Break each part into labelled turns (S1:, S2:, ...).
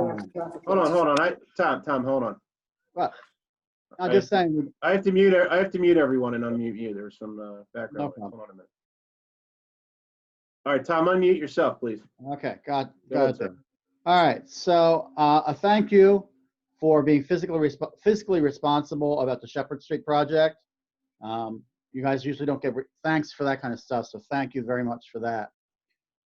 S1: um,
S2: Hold on, hold on. I, Tom, Tom, hold on.
S1: What? I'm
S2: I-
S1: just saying,
S2: I have to mute, I have to mute everyone and unmute you. There's some uh, background.
S1: No
S2: noise.
S1: problem.
S2: Hold on a minute. All right, Tom, unmute yourself, please.
S1: okay, got,
S2: Go ahead,
S1: got it. All right, so uh, a thank you for being physically, resp- fiscally responsible about the Shepherd Street project. Um, You guys usually don't get re- thanks for that kind of stuff, so thank you very much for that.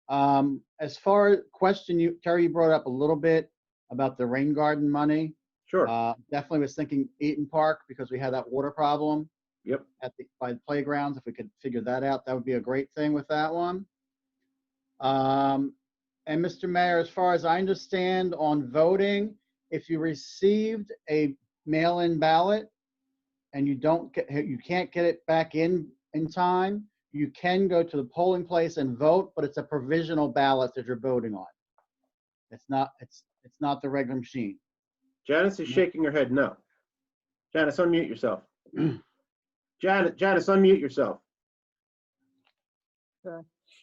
S1: Um, As far as question you, Terry, you brought up a little bit about the rain garden money.
S2: Sure.
S1: Uh, definitely was thinking Eaton Park because we had that water problem.
S2: Yep.
S1: At the, by the playgrounds, if we could figure that out, that would be a great thing with that one. Um, and Mr. Mayor, as far as I understand on voting, if you received a mail-in ballot and you don't get, you can't get it back in, in time, you can go to the polling place and vote, but it's a provisional ballot that you're voting on. It's not, it's, it's not the regular machine.
S2: Janice
S1: mm-hmm.
S2: is shaking her head no. Janice, unmute yourself.
S1: Mm.
S2: Janice, Janice, unmute yourself.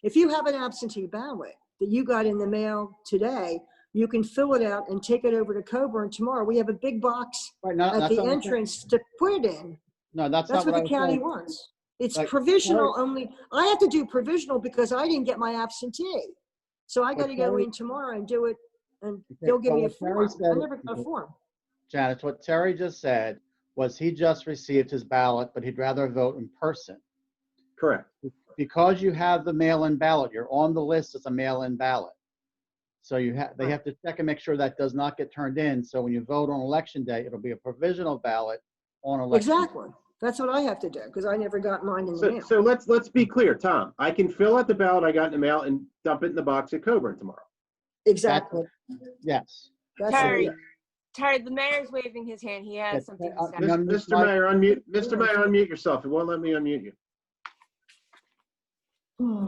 S3: If you have an absentee ballot that you got in the mail today, you can fill it out and take it over to Coburn tomorrow. We have a big box
S1: Right, no,
S3: at
S1: that's
S3: the
S1: not what I'm saying.
S3: entrance to put it in.
S1: No, that's
S3: That's
S1: not what
S3: what
S1: I
S3: the
S1: was
S3: county
S1: saying.
S3: wants. It's
S1: Like,
S3: provisional only. I have to do provisional because I didn't get my absentee. So I
S1: But
S3: gotta go
S1: Terry-
S3: in tomorrow and do it, and
S1: Okay,
S3: they'll give
S1: but
S3: me a
S1: what Terry
S3: form. I
S1: said-
S3: never got a form.
S1: Janice, what Terry just said was he just received his ballot, but he'd rather vote in person.
S2: Correct.
S1: Because you have the mail-in ballot, you're on the list as a mail-in ballot. So you have, they have to check and make sure that does not get turned in. So when you vote on election day, it'll be a provisional ballot on election. day.
S3: Exactly. That's what I have to do, because I never got mine in the
S2: So,
S3: mail.
S2: so let's, let's be clear, Tom. I can fill out the ballot I got in the mail and dump it in the box at Coburn tomorrow.
S1: That's
S3: Exactly.
S1: what- Yes.
S3: That's what
S4: Terry,
S3: it is.
S4: Terry, the mayor's waving his hand. He
S1: Yes,
S4: has something
S1: uh,
S4: to
S1: no,
S4: say.
S2: Mis-
S1: I'm just
S2: Mr.
S1: like-
S2: Mayor, unmute, Mr. Mayor, unmute yourself. It won't let me unmute you.
S3: Hmm.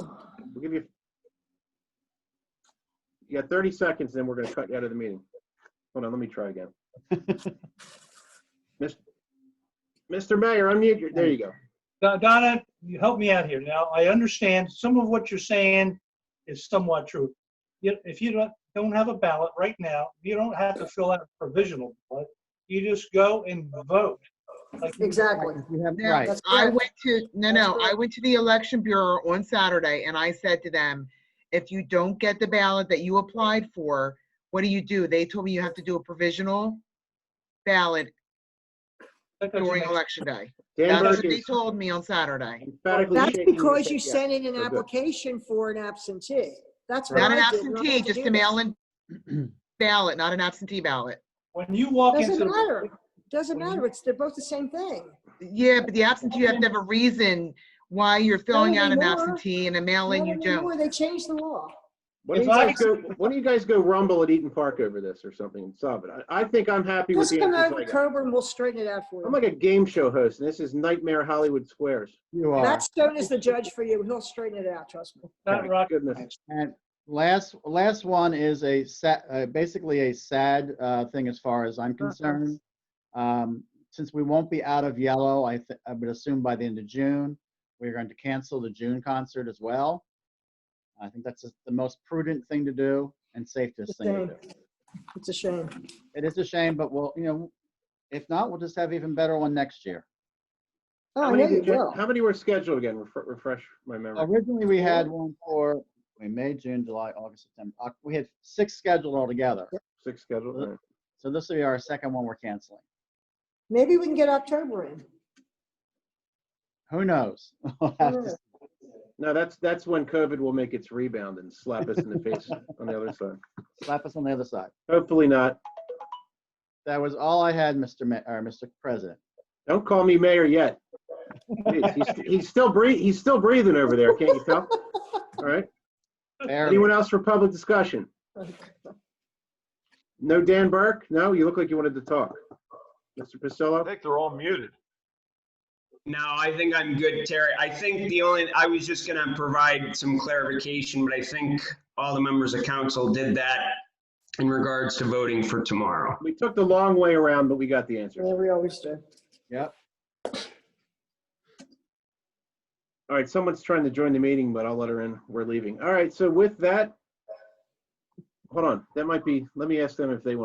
S2: We'll give you. You got 30 seconds, then we're going to cut you out of the meeting. Hold on, let me try again. Mis- Mr. Mayor, unmute your, there you go.
S5: Don- Donna, you help me out here. Now, I understand some of what you're saying is somewhat true. You- If you don't, don't have a ballot right now, you don't have to fill out a provisional ballot. You just go and vote. Like you-
S3: Exactly.
S1: You have,
S6: Now,
S1: right.
S3: That's
S6: I
S3: correct.
S6: went to, no,
S3: That's
S6: no, I
S3: correct.
S6: went to the election bureau on Saturday and I said to them, if you don't get the ballot that you applied for, what do you do? They told me you have to do a provisional ballot
S5: that doesn't
S6: during
S5: make-
S6: election day.
S2: Dan
S6: That's what
S2: Burke
S6: they
S2: is
S6: told me on Saturday.
S2: emphatically
S3: That's
S2: shaking his
S3: because you
S2: head yes.
S3: sent in an
S2: We're good.
S3: application for an absentee. That's what
S6: Not an
S3: I did. when I
S6: absentee,
S3: had to
S6: just
S3: do this.
S6: a mail-in ballot, not an absentee ballot.
S5: When you walk into.
S3: Doesn't
S5: the-
S3: matter. Doesn't matter. It's, they're both the same thing.
S6: Yeah, but the absentee, you have to have a reason why you're filling out an
S3: anymore.
S6: absentee and a mail-in
S3: Not
S6: you don't.
S3: anymore. They changed the law.
S2: Why don't you guys go, why don't you guys go rumble at Eaton Park over this or something and solve it? I, I think I'm happy with
S3: Just
S2: the
S3: come
S2: answers
S3: over
S2: I
S3: to
S2: got.
S3: Coburn, we'll straighten it out for
S2: I'm
S3: you.
S2: like a game show host, and this is Nightmare Hollywood Squares.
S1: You are.
S3: Matt Stone is the judge for you. He'll straighten it out, trust me.
S5: Not rocket
S2: Goodness.
S5: science.
S1: And last, last one is a sa uh, basically a sad, uh, thing as far as I'm concerned. Um, since we won't be out of yellow, I, th- I would assume by the end of June, we're going to cancel the June concert as well. I think that's the most prudent thing to do and safest
S3: It's a
S1: thing
S3: shame.
S1: to do.
S3: It's a shame.
S1: It is a shame, but we'll, you know, if not, we'll just have even better one next year.
S3: Oh,
S2: How
S3: I know
S2: many,
S3: you
S2: did you-
S3: will. Uh,
S2: how many were scheduled again? Refre- Refresh my memory.
S1: Originally, we had one for, we May, June, July, August, September. Oc- We had six scheduled altogether.
S2: Six scheduled. all right.
S1: So this will be our second one we're canceling.
S3: Maybe we can get October in.
S1: Who knows? We'll have to
S3: knows?
S1: see.
S2: No, that's, that's when COVID will make its rebound and slap us in the face on the other side.
S1: slap us on the other side.
S2: Hopefully not.
S1: That was all I had, Mr. Ma- or Mr. President.
S2: Don't call me mayor yet. Jeez, He's, he's still breathing, he's still breathing over there, can't you tell? All right.
S1: Barely.
S2: Anyone else for public discussion? No Dan Burke? No, you look like you wanted to talk. Mr.
S7: I
S2: Pasillo?
S7: think they're all muted.
S8: No, I think I'm good, Terry. I think the only, I was just going to provide some clarification, but I think all the members of council did that in regards to voting for tomorrow.
S2: We took the long way around, but we got the answer.
S3: Yeah, we always do.
S1: Yep.
S2: All right, someone's trying to join the meeting, but I'll let her in. We're leaving. All right, so with that, hold on, that might be, let me ask them if they want